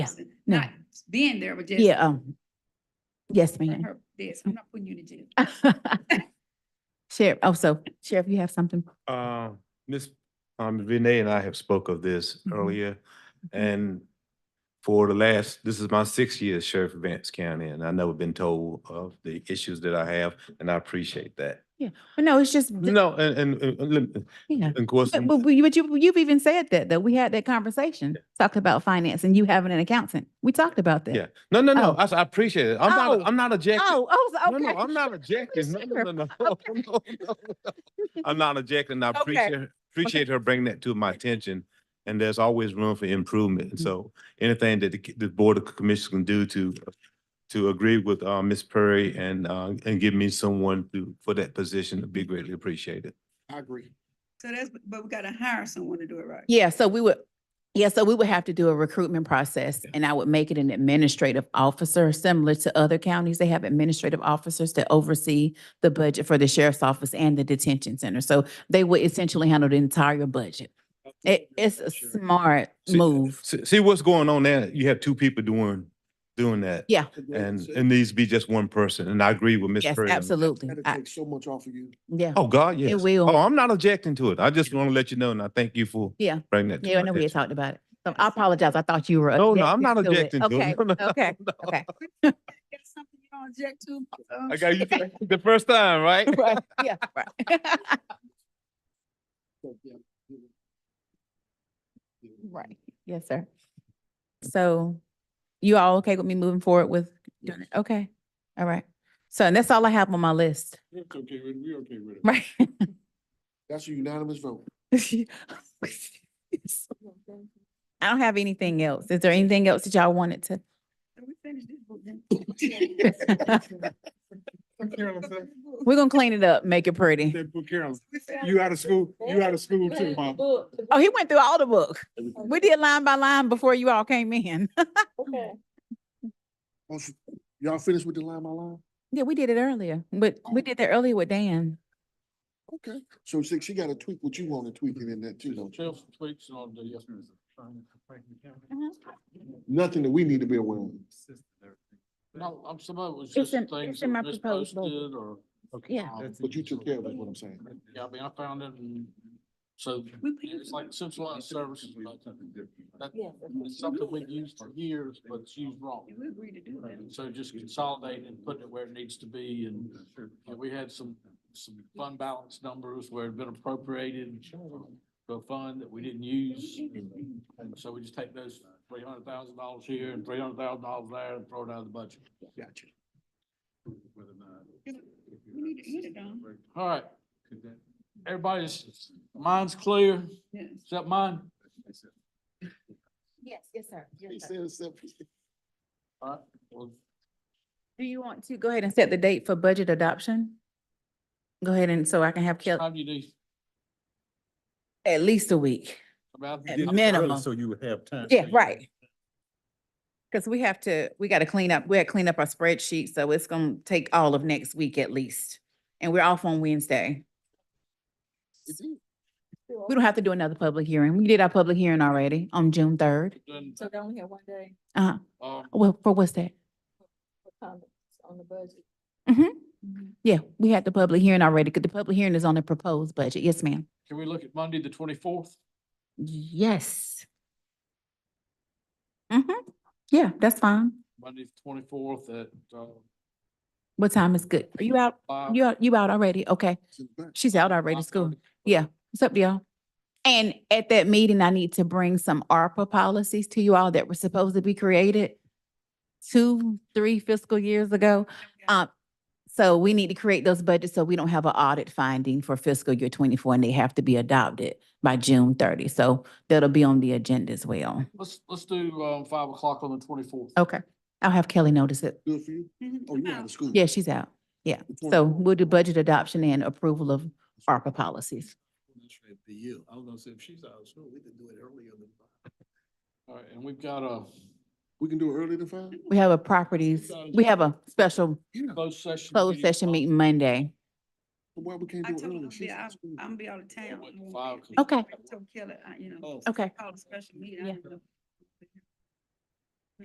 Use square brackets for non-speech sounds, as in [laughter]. No. not being there, but just. Yeah, um, yes, ma'am. Mm-hmm. Ah. Her, this, I'm not putting you in the jail. Sheriff, oh, so Sheriff, you have something? Uh, Ms. Um, Renee and I have spoke of this Mhm. earlier, and for the last, this is my sixth year as Sheriff of Vance County, and I've never been told of the issues that I have, and I appreciate that. Well, No, it's just, th- No, and, and, and, let me- you know, of course, but, but we- but you, you've even said that, that we had that conversation, talked about finance and you having an accountant. We talked about that. yeah, no, no, Oh. no, I, s- I appreciate it. I'm Oh. not, I'm not objecting. Oh, oh, No, okay. no, I'm not objecting. No, no, [laughs] no, no, no, no, no, no. I'm not objecting. I Okay. appreciate, appreciate her bringing that to my attention. And there's always room for improvement. And Mhm. so anything that the, c- the Board of Commissioners can do to, to agree with, uh, Ms. Perry and, uh, and give me someone to, for that position would be greatly appreciated. I agree. So that's, but we gotta hire someone to do it right. Yeah, so we would, yeah, so we would have to do a recruitment process and I would make it an administrative officer, similar to other counties. They have administrative officers that oversee the budget for the sheriff's office and the detention center. So they would essentially handle the entire budget. It, it's a smart See- move. See, see what's going on there? You have two people doing, doing that. Yeah. And it needs to be just one person. And I agree with Ms. Yes, Perry. on that. absolutely. That'll I- take so much off of you. Yeah. Oh, God, yes. will. Oh, I'm not objecting to it. I just want to let you know, and I thank you for Yeah. bringing that. to Yeah, I my know we had attention. talked about it. So I apologize. I thought you were. No, no, I'm not objective objecting Okay, to it. [laughs] Oh, No, no, okay, no. [laughs] okay. [laughs] That's something you don't object to. uh, [laughs] I got you for [laughs] the first time, right? Right, yeah, [laughs] right. So, yeah, you know. Yeah. Right, yes, sir. So you all okay with me moving forward with doing it? Okay, all right. So and that's all I have on my list, [laughs] We're okay with it, we're okay with it. [laughs] right? That's a unanimous vote. I don't have anything else. Is there anything else that y'all wanted to? so We finish this book then. [laughs] [laughs] We're gonna clean it up, make it pretty. put Carolyn, out of school, you out of school too, mom. Oh, he went through all the book. We did line by line before you all came in. [laughs] Y'all finished with the line by line? Yeah, we did it earlier, but we did that earlier with Dan. Okay, so see, she got to tweak what you want to tweak it in that too, don't you? tweaks on the, uh, yes, Uh-huh. Nothing that we need to be aware of. No, I'm, some of it was It's just in- things it's that in my were proposed budget. misposted or. Yeah. um, But you took care of it, what I'm saying. Yeah, I mean, I found it and so We pay it's like centralized services. like that- It's something we've used for years, but it's used wrong. We agreed to do that. And So just consolidate and put it where it needs to be and and we had some, some fund balance numbers where it'd been appropriated to a fund that we didn't use. And so we just take those three hundred thousand dollars here and three hundred thousand dollars there and throw it out of the budget. Gotcha. We need to get it done. All right. Everybody's, mind's clear, Yes. except mine. Yes, yes, sir. He said, except- All right. Well, Do you want to go ahead and set the date for budget adoption? Go ahead and so I can have what Kelly time you do? at least a week. About- At minimum. So you would have time. Yeah, right. Because we have to, we got to clean up, we had to clean up our spreadsheet, so it's going to take all of next week at least. And we're off on Wednesday. We don't have to do another public hearing. We did our public hearing already on June third. Then, So don't we have one day Uh, um, well, for what's that? for comments on the budget? Mm-hmm. Mm-hmm. Yeah, we had the public hearing already, because the public hearing is on the proposed budget. Yes, ma'am. Can we look at Monday, the twenty-fourth? Yes. Mm-hmm. Yeah, that's fine. Monday, the twenty-fourth at, uh, What time is good? Are you out? five. You out, you out already? Okay. She's out already to school. 5:30. Yeah, what's up, y'all? And at that meeting, I need to bring some ARPA policies to you all that were supposed to be created two, three fiscal years ago. Um, so we need to create those budgets so we don't have an audit finding for fiscal year twenty-four and they have to be adopted by June thirty. So that'll be on the agenda as well. Let's, let's do, um, five o'clock on the twenty-fourth. Okay. I'll have Kelly notice it. Good for you? Oh, you out of school? Yeah, she's out. Yeah. So we'll do budget adoption and approval of ARPA policies. The you, I was gonna say, if she's out of school, we can do it earlier than five. All right, and we've got a We can do it earlier than five? We have a properties, we have a special Yeah. closed session. closed session meeting Monday. Why we can't I do it told him, earlier? I'll She's be out out- of school. I'm gonna be out of town. Five. Okay. I told Kelly, I, you know, Oh, Okay. call a special meeting. I Yeah. don't know.